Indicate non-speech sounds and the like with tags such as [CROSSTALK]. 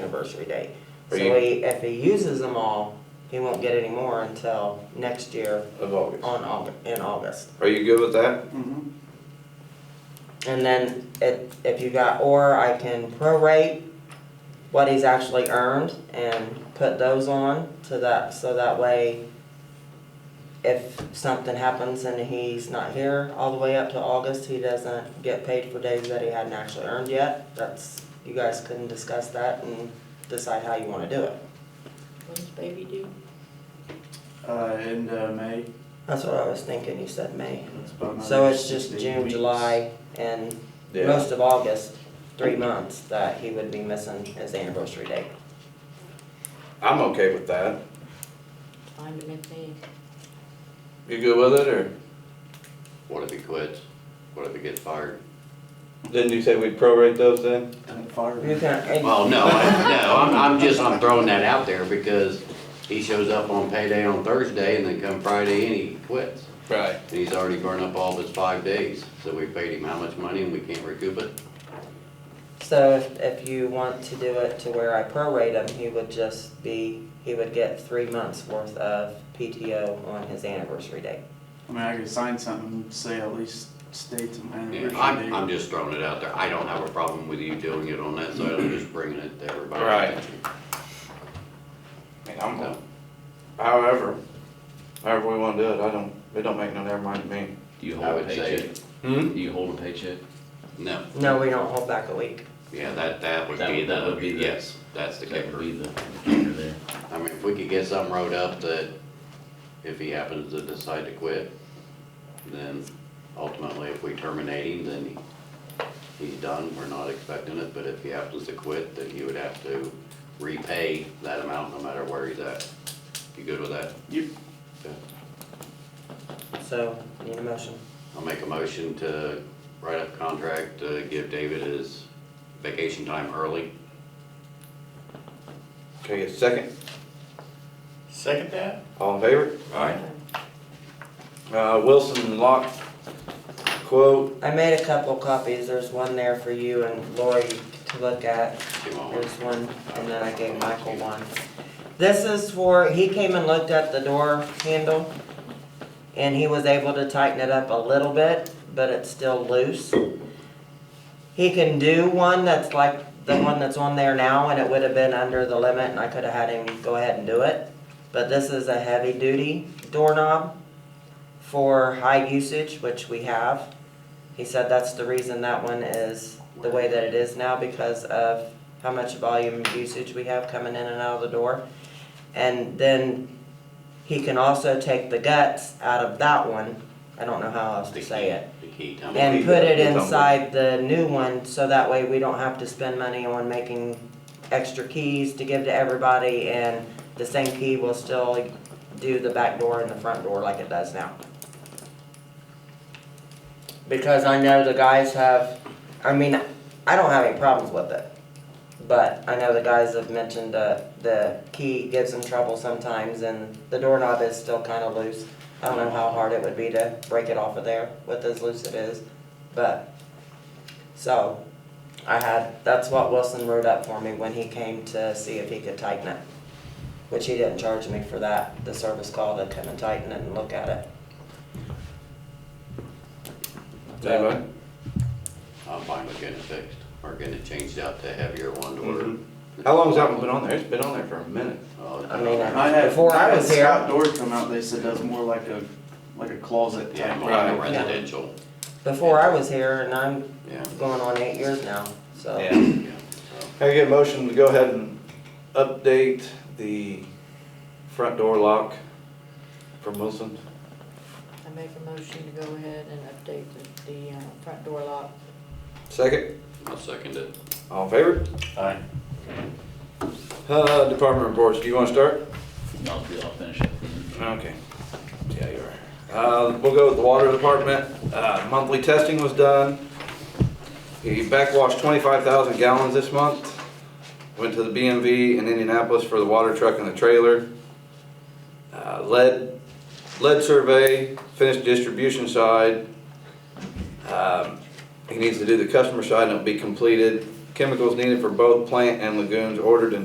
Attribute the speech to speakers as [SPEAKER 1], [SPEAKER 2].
[SPEAKER 1] anniversary date. So
[SPEAKER 2] Are you-
[SPEAKER 1] he, if he uses them all, he won't get any more until next year
[SPEAKER 2] of August.
[SPEAKER 1] on Aug in August.
[SPEAKER 2] Are you good with that?
[SPEAKER 3] Mhm.
[SPEAKER 1] And then if, if you got, or I can prorate what he's actually earned and put those on to that, so that way if something happens and he's not here all the way up to August, he doesn't get paid for days that he hadn't actually earned yet. That's, you guys can discuss that and decide how you wanna do it.
[SPEAKER 4] When's baby due?
[SPEAKER 3] Uh, in uh, May.
[SPEAKER 1] That's what I was thinking, you said May.
[SPEAKER 3] That's about another
[SPEAKER 1] So it's just
[SPEAKER 3] 16
[SPEAKER 1] June,
[SPEAKER 3] weeks.
[SPEAKER 1] July, and
[SPEAKER 2] Yeah.
[SPEAKER 1] most of August, three months that he would be missing his anniversary date.
[SPEAKER 2] I'm okay with that.
[SPEAKER 4] Fine to make me.
[SPEAKER 2] You good with it, or?
[SPEAKER 5] What if he quits? What if he gets fired?
[SPEAKER 2] Didn't you say we'd prorate those then?
[SPEAKER 3] And it fired.
[SPEAKER 1] You can, and-
[SPEAKER 5] Well, no, [LAUGHS] I- no, I'm, I'm just, I'm throwing that out there because he shows up on payday on Thursday and then come Friday and he quits.
[SPEAKER 2] Right.
[SPEAKER 5] And he's already burned up all of his five days, so we paid him how much money and we can't recoup it?
[SPEAKER 1] so if, if you want to do it to where I prorate him, he would just be, he would get three months worth of PTO on his anniversary date.
[SPEAKER 3] I mean, I could sign something, say at least state some
[SPEAKER 5] Yeah,
[SPEAKER 3] anniversary
[SPEAKER 5] I'm, I'm
[SPEAKER 3] date.
[SPEAKER 5] just throwing it out there. I don't have a problem with you doing it on that side. I'm just bringing it to everybody.
[SPEAKER 2] Right. I mean, I'm, good. however, however we wanna do it, I don't, it don't make no damn mind to me.
[SPEAKER 6] Do you
[SPEAKER 5] I
[SPEAKER 6] hold a
[SPEAKER 5] would say
[SPEAKER 6] paycheck?
[SPEAKER 2] Hmm?
[SPEAKER 6] Do you hold a paycheck?
[SPEAKER 5] No,
[SPEAKER 1] No, we don't hold back a week.
[SPEAKER 5] yeah, that, that would
[SPEAKER 6] That
[SPEAKER 5] be
[SPEAKER 6] would- that
[SPEAKER 5] the,
[SPEAKER 6] would be the-
[SPEAKER 5] yes, that's the
[SPEAKER 6] That would
[SPEAKER 5] kicker.
[SPEAKER 6] be the kicker there.
[SPEAKER 5] I mean, if we could get something wrote up that if he happens to decide to quit, then ultimately if we terminate him, then he, he's done, we're not expecting it, but if he happens to quit, then he would have to repay that amount no matter where he's at. You good with that?
[SPEAKER 3] Yep.
[SPEAKER 5] Okay.
[SPEAKER 1] So, need a motion.
[SPEAKER 5] I'll make a motion to write up a contract to give David his vacation time early.
[SPEAKER 2] Okay, second,
[SPEAKER 7] Second that?
[SPEAKER 2] all in favor?
[SPEAKER 7] Alright.
[SPEAKER 2] Uh, Wilson Lock quote,
[SPEAKER 1] I made a couple copies, there's one there for you and Lori to look at.
[SPEAKER 5] Give him a horn.
[SPEAKER 1] There's one, and then I gave Michael one. This is for, he came and looked at the door handle, and he was able to tighten it up a little bit, but it's still loose. He can do one that's like the one that's on there now, and it would have been under the limit, and I could have had him go ahead and do it. But this is a heavy-duty doorknob for high usage, which we have. He said that's the reason that one is the way that it is now, because of how much volume of usage we have coming in and out of the door. And then he can also take the guts out of that one, I don't know how else
[SPEAKER 5] The
[SPEAKER 1] to
[SPEAKER 5] key-
[SPEAKER 1] say it,
[SPEAKER 5] The key time.
[SPEAKER 1] and put it
[SPEAKER 2] It's on the-
[SPEAKER 1] inside the new one, so that way we don't have to spend money on making extra keys to give to everybody, and the same key will still do the back door and the front door like it does now. Because I know the guys have, I mean, I don't have any problems with it. But I know the guys have mentioned uh, the key gives them trouble sometimes and the doorknob is still kind of loose. I don't know how hard it would be to break it off of there with as loose it is, but, so, I had, that's what Wilson wrote up for me when he came to see if he could tighten it. Which he didn't charge me for that, the service call to come and tighten it and look at it.
[SPEAKER 2] anybody?
[SPEAKER 5] I'm fine with getting it fixed, or getting it changed out to heavier one to order.
[SPEAKER 2] Mhm. How long's that one been on there? It's been on there for a minute.
[SPEAKER 5] Oh,
[SPEAKER 1] I mean,
[SPEAKER 3] I had,
[SPEAKER 1] Before I
[SPEAKER 3] I had
[SPEAKER 1] was here-
[SPEAKER 3] Scott Doors come out, they said that's more like a, like a closet
[SPEAKER 5] Yeah,
[SPEAKER 3] type.
[SPEAKER 5] more
[SPEAKER 2] Right.
[SPEAKER 5] like a residential,
[SPEAKER 1] Before I was here and I'm
[SPEAKER 5] yeah,
[SPEAKER 1] going on eight years now, so.
[SPEAKER 2] Yeah.
[SPEAKER 5] yeah, so.
[SPEAKER 2] Can I get a motion to go ahead and update the front door lock from Wilson?
[SPEAKER 4] I make a motion to go ahead and update the, the, uh, front door lock.
[SPEAKER 2] Second,
[SPEAKER 5] I'll second it.
[SPEAKER 2] all in favor?
[SPEAKER 7] Alright.
[SPEAKER 2] Uh, department reports, do you wanna start?
[SPEAKER 6] I'll, I'll finish up then.
[SPEAKER 2] Okay. Yeah, you are. Uh, we'll go with the water department. Uh, monthly testing was done. He backwashed twenty-five thousand gallons this month. Went to the BMV in Indianapolis for the water truck and the trailer. Uh, lead, lead survey, finished distribution side. Um, he needs to do the customer side and it'll be completed. Chemicals needed for both plant and lagoons ordered and